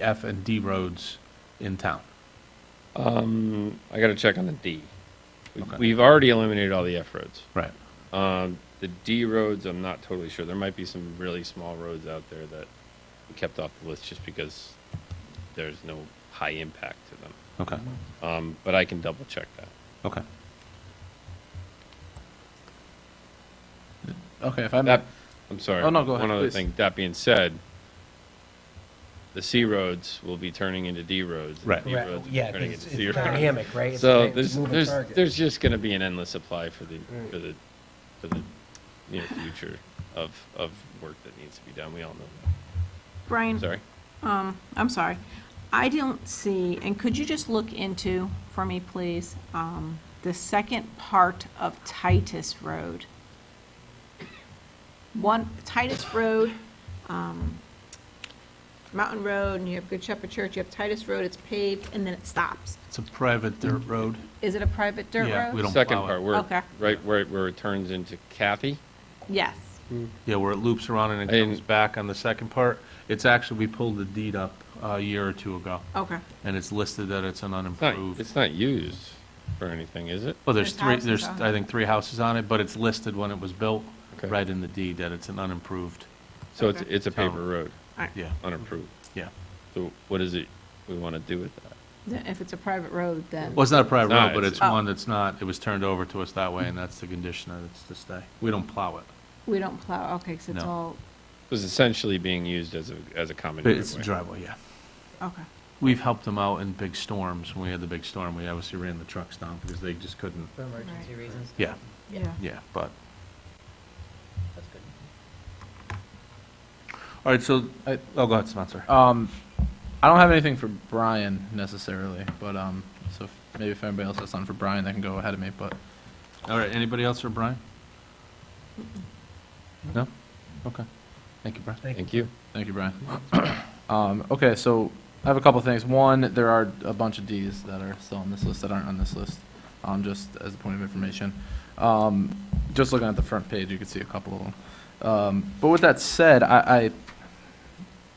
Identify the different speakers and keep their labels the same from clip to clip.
Speaker 1: F and D roads in town.
Speaker 2: Um, I gotta check on the D. We-
Speaker 1: Okay.
Speaker 2: We've already eliminated all the F roads.
Speaker 1: Right.
Speaker 2: Um, the D roads, I'm not totally sure. There might be some really small roads out there that we kept off the list just because there's no high impact to them.
Speaker 1: Okay,
Speaker 2: Um, but I can double check that.
Speaker 1: okay. Okay, if I'm,
Speaker 2: That, I'm sorry.
Speaker 1: Oh, no, go ahead,
Speaker 2: One other
Speaker 1: please.
Speaker 2: thing. That being said, the C roads will be turning into D roads. and
Speaker 1: Right.
Speaker 2: D
Speaker 3: Right,
Speaker 2: roads will be
Speaker 3: yeah,
Speaker 2: turning
Speaker 3: it's
Speaker 2: into
Speaker 3: it's
Speaker 2: C roads.
Speaker 3: dynamic, right? It's
Speaker 2: So
Speaker 3: like
Speaker 2: there's,
Speaker 3: moving
Speaker 2: there's,
Speaker 3: target.
Speaker 2: there's just gonna be an endless supply for the,
Speaker 3: Right.
Speaker 2: for the, for the near future of, of work that needs to be done. We all know that.
Speaker 4: Brian,
Speaker 2: Sorry.
Speaker 4: I'm sorry. I don't see, and could you just look into for me, please, um, the second part of Titus Road? One, Titus Road, um, Mountain Road, and you have Good Shepherd Church, you have Titus Road, it's paved, and then it stops.
Speaker 1: it's a private dirt road.
Speaker 4: Is it a private dirt road?
Speaker 1: Yeah, we don't
Speaker 2: Second
Speaker 1: plow it.
Speaker 2: part, where,
Speaker 4: Okay.
Speaker 2: right, where, it- where it turns into Kathy.
Speaker 4: Yes.
Speaker 1: Yeah, where it loops around and it
Speaker 2: I
Speaker 1: comes
Speaker 2: didn't-
Speaker 1: back on the second part. It's actually, we pulled the deed up a year or two ago,
Speaker 4: Okay.
Speaker 1: and it's listed that it's an
Speaker 2: It's not,
Speaker 1: unimproved.
Speaker 2: it's not used for anything, is it?
Speaker 1: Well, there's
Speaker 4: There's
Speaker 1: three,
Speaker 4: houses
Speaker 1: there's,
Speaker 4: on
Speaker 1: I think, three houses on it, but it's listed when it was built,
Speaker 2: Okay.
Speaker 1: right in the deed, that it's an unimproved,
Speaker 2: So it's,
Speaker 4: Okay.
Speaker 2: it's a
Speaker 1: Town.
Speaker 2: paper road,
Speaker 4: All right.
Speaker 1: yeah,
Speaker 2: unapproved.
Speaker 1: yeah.
Speaker 2: So what is it we want to do with that?
Speaker 4: Then If it's a private road, then.
Speaker 1: Well, it's not a private
Speaker 2: Nah,
Speaker 1: road, but
Speaker 2: it's-
Speaker 1: it's
Speaker 4: Oh.
Speaker 1: one that's not, it was turned over to us that way, and that's the condition that it's to stay. We don't plow it.
Speaker 4: We don't plow, okay, because it's
Speaker 1: No.
Speaker 4: all,
Speaker 2: It was essentially being used as a, as a common
Speaker 1: But it's a
Speaker 2: driveway.
Speaker 1: driveway, yeah.
Speaker 4: okay.
Speaker 1: We've helped them out in big storms. When we had the big storm, we obviously ran the trucks down because they just couldn't.
Speaker 3: For emergency
Speaker 4: Right.
Speaker 3: reasons.
Speaker 1: Yeah,
Speaker 4: Yeah.
Speaker 1: yeah, but,
Speaker 3: That's good.
Speaker 1: all right, so, I- oh, go ahead, Spencer.
Speaker 5: Um, I don't have anything for Brian necessarily, but um, so if, maybe if anybody else has something for Brian, they can go ahead of me. But
Speaker 1: All right, anybody else for Brian? No? Okay.
Speaker 5: thank you, Brian.
Speaker 3: Thank you.
Speaker 2: Thank you.
Speaker 5: Thank you, Brian. um, okay, so I have a couple things. One, there are a bunch of Ds that are still on this list that aren't on this list. Um, just as a point of information. Um, just looking at the front page, you can see a couple of them. Um, but with that said, I, I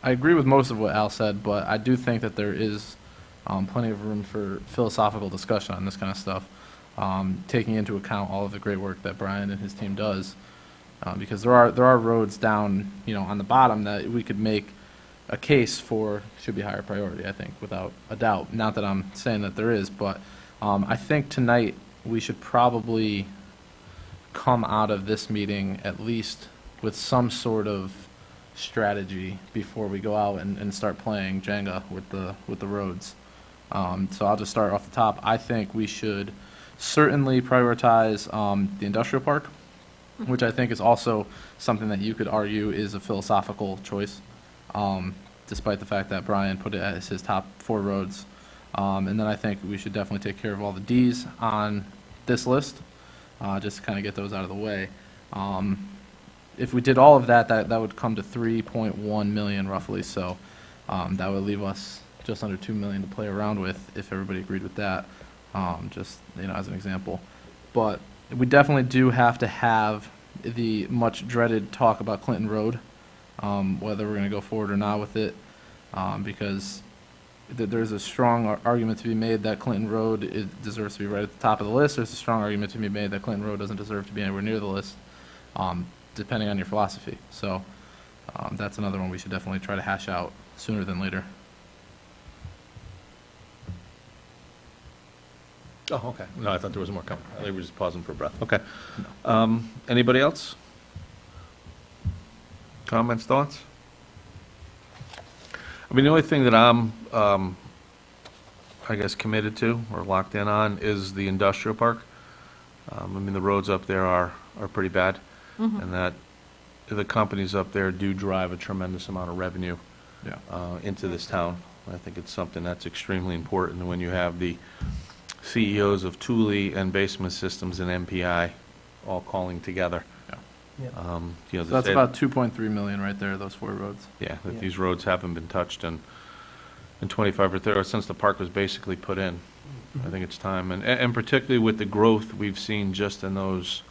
Speaker 5: I agree with most of what Al said, but I do think that there is um, plenty of room for philosophical discussion on this kind of stuff, um, taking into account all of the great work that Brian and his team does uh, because there are there are roads down you know on the bottom that we could make a case for should be higher priority. I think without a doubt. Not that I'm saying that there is, but um, I think tonight we should probably come out of this meeting at least with some sort of strategy before we go out and, and start playing Jenga with the with the roads. Um, so I'll just start off the top. I think we should certainly prioritize um, the industrial park which I think is also something that you could argue is a philosophical choice, um, despite the fact that Brian put it as his top four roads. Um, and then I think we should definitely take care of all the Ds on this list, uh, just to kind of get those out of the way. Um, if we did all of that, that, that would come to 3.1 million roughly, so um, that would leave us just under 2 million to play around with if everybody agreed with that, um, just, you know, as an example. But we definitely do have to have the much dreaded talk about Clinton Road, um, whether we're going to go forward or not with it, um, because th- there's a strong ar- argument to be made that Clinton Road i- deserves to be right at the top of the list. There's a strong argument to be made that Clinton Road doesn't deserve to be anywhere near the list, um, depending on your philosophy. So um, that's another one we should definitely try to hash out sooner than later.
Speaker 1: Oh, okay. No, I thought there was more coming. I think we were just pausing for breath. Okay. Um, Anybody else? Comments, thoughts? I mean, the only thing that I'm, um, I guess, committed to or locked in on is the industrial park. Um, I mean, the roads up there are, are pretty bad. And that, the companies up there do drive a tremendous amount of revenue
Speaker 5: Yeah.
Speaker 1: uh, into this town. I think it's something that's extremely important when you have the CEOs E of Thule and Basement Systems and MPI all calling together.
Speaker 3: Yeah.
Speaker 1: Um, You know,
Speaker 5: So
Speaker 1: to
Speaker 5: that's
Speaker 1: say-
Speaker 5: about 2.3 million right there, those four roads.
Speaker 1: Yeah, that
Speaker 3: Yeah.
Speaker 1: these roads haven't been touched in, in 25 or 30, or since the park was basically put in.
Speaker 5: Mm-hmm.
Speaker 1: I think it's time, and, and particularly with the growth we've seen just in those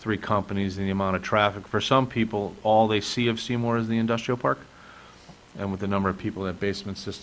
Speaker 1: three companies and the amount of traffic. For some people, all they see of Seymour is the industrial park, and with the number of people that Basement Systems